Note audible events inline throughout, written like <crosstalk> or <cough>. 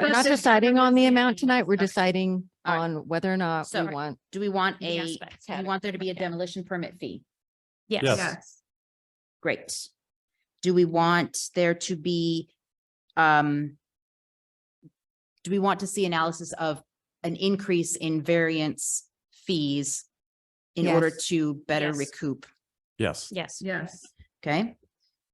We're not deciding on the amount tonight. We're Okay. deciding All right. on whether or not we So- want, Do we want The a, aspects do we had it. want there to be a Okay. demolition permit fee? Yes. Great. Do we want there to be, um, do we want to see analysis of an increase in variance fees in order Yes. to better Yes. recoup? Yes. Yes. Yes. <laughs> Okay.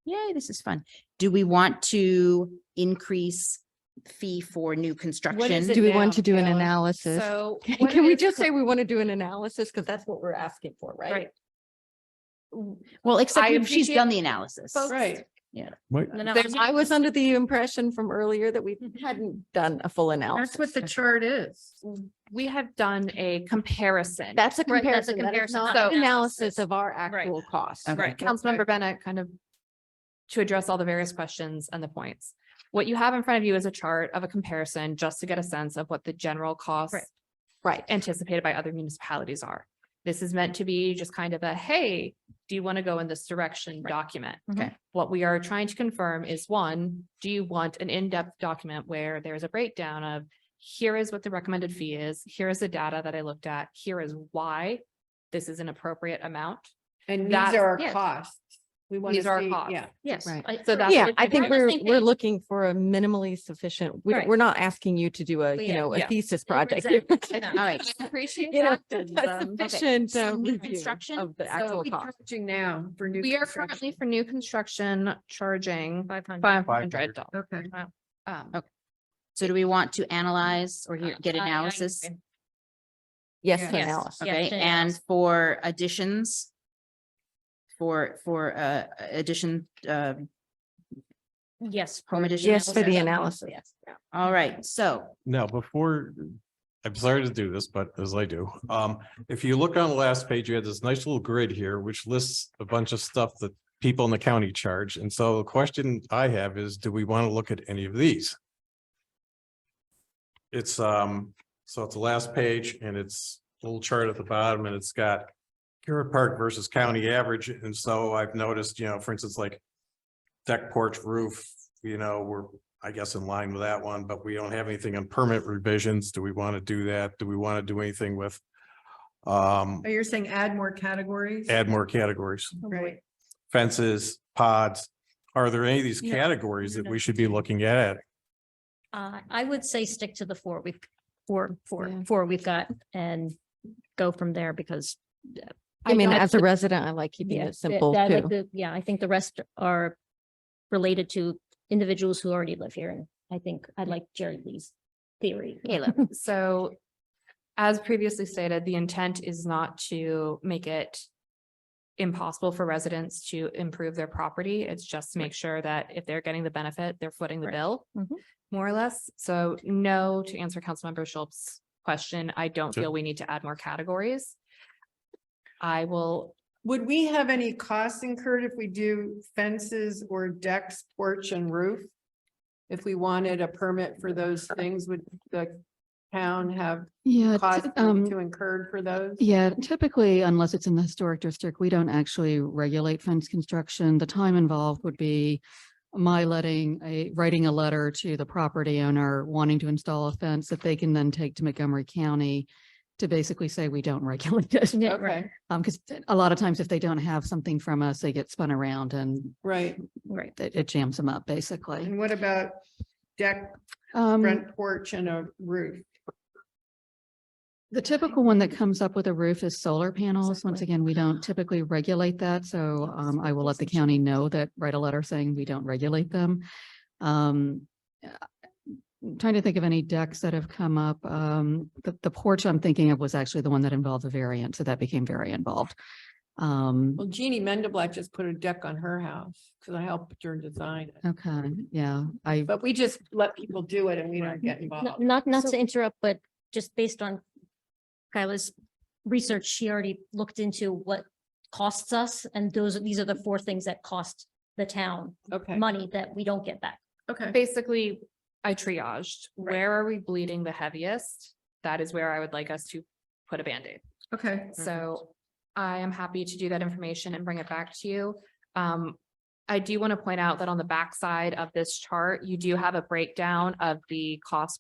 Yay, this is fun. Do we want to increase fee for new construction? it do we want now, to do an Taylor? analysis? So. <laughs> Can what can we is just cor- say uh, we want to do an analysis? Because that's what we're asking for, right? Right. Well, except I if she's appreciate done the analysis. folks- Right. Wait, No, Mm-hmm. no, There's- I'm- I <laughs> was under the impression from earlier that we hadn't done a full analysis. That's what the chart is. We have done a comparison. That's a Right, that's a comparison, that is comparison, not so- an analysis of our actual costs. Okay. Right. Councilmember Bennett kind of to address all the various questions and the points. What you have in front of you is a chart of a comparison just to get a sense of what the general costs Right. Right. anticipated by other municipalities are. This is meant to be just kind of a, hey, do you want to go in this direction document? Okay. What we are trying to confirm is one, do you want an in-depth document where there is a breakdown of here is what the recommended fee is, here is the data that I looked at, here is why this is an appropriate amount. And these That's- are our yes. costs. We want to These are our see, costs. yeah. Yes. Right. So that's. Yeah, what I it's think about. we're, we're looking for a minimally sufficient, we're, Right. we're not asking you to do a, you Yeah, know, a yeah. thesis project. <laughs> Exactly. All right. Appreciate You know, that. and, a um, Sufficient so uh, new review construction, of the so actual We cost. charging now for new. We are construction. currently for new construction charging Five five hundred 500. dollars. Okay. Oh, Um, Okay. So do we want to analyze or hear- get Uh, I- I analysis? agree. Yes, Yes. for analysis. Okay, to and for additions? For, for, uh, addition, uh, Yes. home addition? Yes, for the analysis? analysis. All right, so, now, before, I'm sorry to do this, but as I do, um, if you look on the last page, you had this nice little grid here, which lists a bunch of stuff that people in the county charge. And so the question I have is, do we want to look at any of these? It's, um, so it's the last page and it's a little chart at the bottom and it's got Carrot Park versus county average. And so I've noticed, you know, for instance, like deck porch roof, you know, we're I guess in line with that one, but we don't have anything on permit revisions. Do we want to do that? Do we want to do anything with? Um, Oh, you're saying add more categories? add more categories, Right. fences, pods. Are there any of these No, categories no, that no. we should be looking at? Uh, I would say stick to the four we've, four, Yeah. four, four we've got and go from there because. uh, I mean, don't- as a resident, I like keeping yeah, it th- simple I like too. the- Yeah, I think the rest are related to individuals who already live here. And I think I like Jerry Lee's theory. Caleb, So as previously stated, the intent is not to make it impossible for residents to improve their property. It's just to make sure that if they're getting the benefit, they're footing the Right. bill, Mhm. more or less. So no, to answer Councilmember Schultz's question, I don't Sure. feel we need to add more categories. I will, Would we have any costs incurred if we do fences or decks, porch and roof? If we wanted a permit for those things, would the town have Yeah, costs t- to um, incur for those? yeah, typically, unless it's in the historic district, we don't actually regulate fence construction. The time involved would be my letting a, writing a letter to the property owner wanting to install a fence that they can then take to Montgomery County to basically say we don't <laughs> regulate it. Yeah, right, Okay, Um, because a lot of times if they don't have something from us, they get spun around and right. <laughs> Right. it, it jams them up, basically. And what about deck, Um, front porch and a roof? The typical one that comes up with a roof is solar panels. Once again, we don't typically regulate that, so um, I will let the county know that, write a letter saying we don't regulate them. Um, uh, I'm Trying to think of any decks that have come up. Um, the, the porch I'm thinking of was actually the one that involved a variant, so that became very involved. Um, Well, Jeannie Mendablack just put a deck on her house because I helped her design it. okay, yeah, I, But we just let people do it and we don't get Not, involved. not not So- to interrupt, but just based on Kyla's research, she already looked into what costs us. And those, these are the four things that cost the town Okay, money that we don't get back. okay. basically, I triaged, where are we bleeding the heaviest? That is where I would like us to put a Band-Aid. Okay. So I am happy to do that information and bring it back to you. Um, I do want to point out that on the backside of this chart, you do have a breakdown of the cost